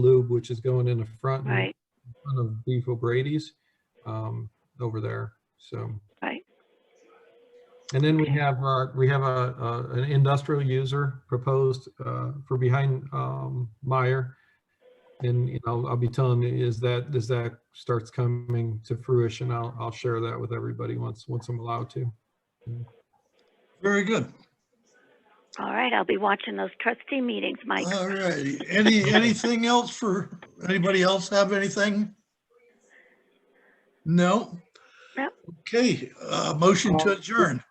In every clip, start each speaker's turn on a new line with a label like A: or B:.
A: which is going in the front. and
B: right,
A: in front of Beef O'Brady's um, over there, so.
B: Right.
A: And then we
B: Okay.
A: have, our- we have a- a, an industrial user proposed uh, for behind um, Meyer. And, you know, I'll be telling you, is that, as that starts coming to fruition, I'll, I'll share that with everybody once, once I'm allowed to.
C: Very good.
B: all right, I'll be watching those trustee meetings, Mike.
C: All righty. Any, anything else for, anybody else have anything? No?
B: Nope.
C: Okay, uh, motion to adjourn.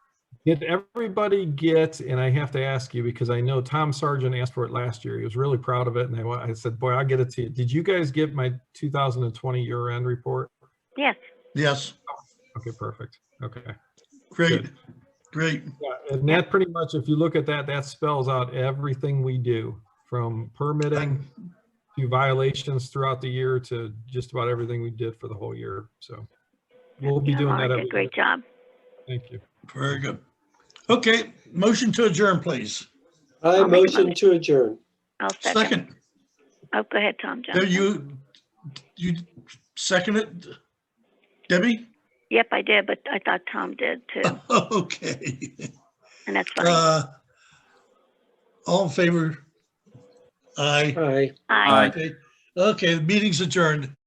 A: Did everybody get, and I have to ask you because I know Tom Sargent asked for it last year. He was really proud of it. And I, wa- I said, boy, I'll get it to you. Did you guys get my 2020 year end report?
B: Yes,
C: Yes,
A: Okay, perfect. Okay.
C: great, great.
A: Yeah, and that pretty much, if you look at that, that spells out everything we do from permitting to violations throughout the year to just about everything we did for the whole year. So we'll be doing that.
B: Mark did
A: every
B: a great job.
A: year. Thank you.
C: Very good. Okay, motion to adjourn, please.
D: I
B: I'll make a
D: motion
B: motion.
D: to adjourn.
B: I'll second.
C: Second,
B: Oh, go ahead, Tom
C: No,
B: Johnson.
C: you, you second it? Debbie?
B: Yep, I did, but I thought Tom did too,
C: Okay.
B: and that's fine.
C: Uh, All in favor? Aye.
D: Aye.
B: Aye.
C: Okay, Okay. the meeting's adjourned.